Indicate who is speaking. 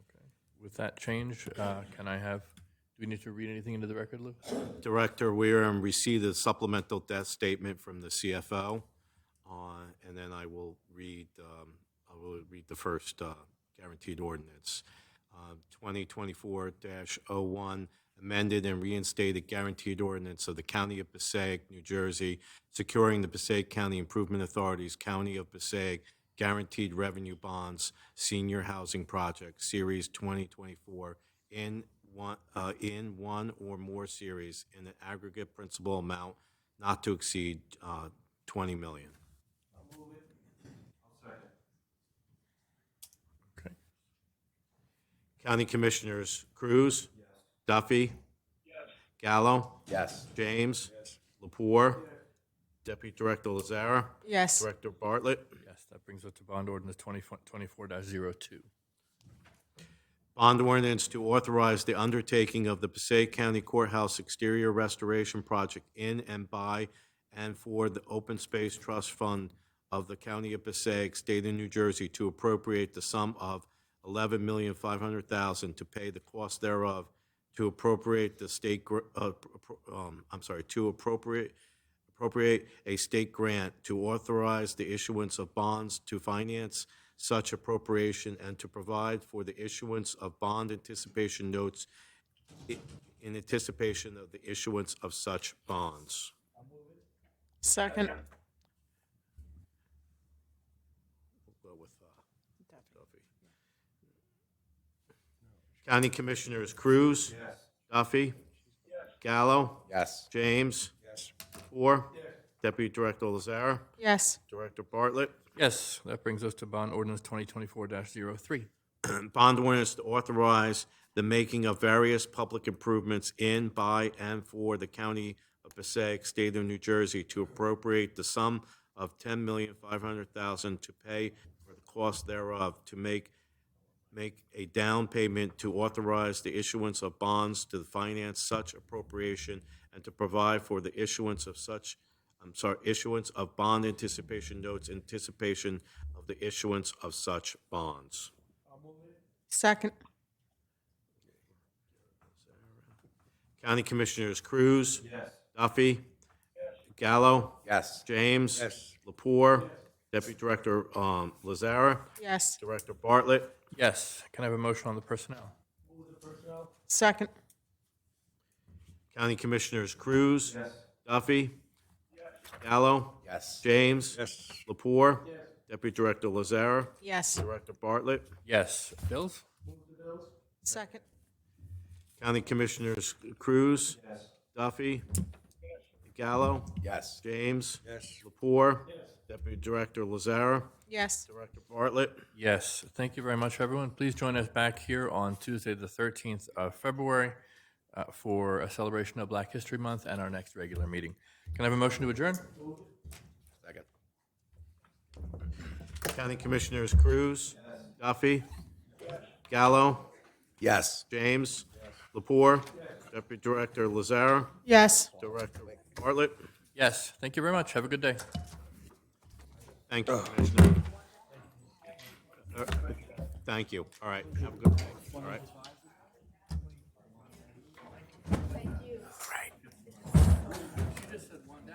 Speaker 1: With that change, uh, can I have, do we need to read anything into the record, Lou?
Speaker 2: Director, we are in receipt of supplemental debt statement from the CFO, uh, and then I will read, um, I will read the first uh, guaranteed ordinance. Uh, 2024-01, amended and reinstated guaranteed ordinance of the County of Passaic, New Jersey, securing the Passaic County Improvement Authority's County of Passaic Guaranteed Revenue Bonds Senior Housing Project, Series 2024, in one, uh, in one or more series in an aggregate principal amount not to exceed, uh, twenty million.
Speaker 1: Okay.
Speaker 2: County Commissioners Cruz. Duffy. Gallo.
Speaker 3: Yes.
Speaker 2: James. Lapore. Deputy Director Lazara.
Speaker 4: Yes.
Speaker 2: Director Bartlett.
Speaker 1: Yes, that brings us to bond ordinance 2024-02.
Speaker 2: Bond ordinance to authorize the undertaking of the Passaic County Courthouse Exterior Restoration Project in and by and for the Open Space Trust Fund of the County of Passaic, State of New Jersey, to appropriate the sum of eleven million five hundred thousand to pay the cost thereof, to appropriate the state, gr- uh, pro- um, I'm sorry, to appropriate appropriate a state grant to authorize the issuance of bonds to finance such appropriation and to provide for the issuance of bond anticipation notes i- in anticipation of the issuance of such bonds.
Speaker 4: Second.
Speaker 2: We'll go with, uh, Duffy. County Commissioners Cruz. Duffy. Gallo.
Speaker 3: Yes.
Speaker 2: James.
Speaker 3: Yes.
Speaker 2: Four. Deputy Director Lazara.
Speaker 4: Yes.
Speaker 2: Director Bartlett.
Speaker 1: Yes, that brings us to bond ordinance 2024-03.
Speaker 2: bond ordinance to authorize the making of various public improvements in, by, and for the county of Passaic, state of New Jersey, to appropriate the sum of ten million five hundred thousand to pay for the cost thereof, to make, make a down payment to authorize the issuance of bonds to finance such appropriation and to provide for the issuance of such, I'm sorry, issuance of bond anticipation notes, anticipation of the issuance of such bonds.
Speaker 4: Second.
Speaker 2: County Commissioners Cruz. Duffy. Gallo.
Speaker 3: Yes.
Speaker 2: James.
Speaker 3: Yes.
Speaker 2: Lapore. Deputy Director um, Lazara.
Speaker 4: Yes.
Speaker 2: Director Bartlett.
Speaker 1: Yes, can I have a motion on the personnel?
Speaker 4: Second.
Speaker 2: County Commissioners Cruz. Duffy. Gallo.
Speaker 3: Yes.
Speaker 2: James.
Speaker 3: Yes.
Speaker 2: Lapore. Deputy Director Lazara.
Speaker 4: Yes.
Speaker 2: Director Bartlett.
Speaker 1: Yes, bills?
Speaker 4: Second.
Speaker 2: County Commissioners Cruz. Duffy. Gallo.
Speaker 3: Yes.
Speaker 2: James.
Speaker 3: Yes.
Speaker 2: Lapore. Deputy Director Lazara.
Speaker 4: Yes.
Speaker 2: Director Bartlett.
Speaker 1: Yes, thank you very much, everyone. Please join us back here on Tuesday, the 13th of February, uh, for a celebration of Black History Month and our next regular meeting. Can I have a motion to adjourn?
Speaker 3: Second.
Speaker 2: County Commissioners Cruz. Duffy. Gallo.
Speaker 3: Yes.
Speaker 2: James. Lapore. Deputy Director Lazara.
Speaker 4: Yes.
Speaker 2: Director Bartlett.
Speaker 1: Yes, thank you very much. Have a good day.
Speaker 2: Thank you, Commissioner. Uh, Thank you. All right. Have a good day. All right.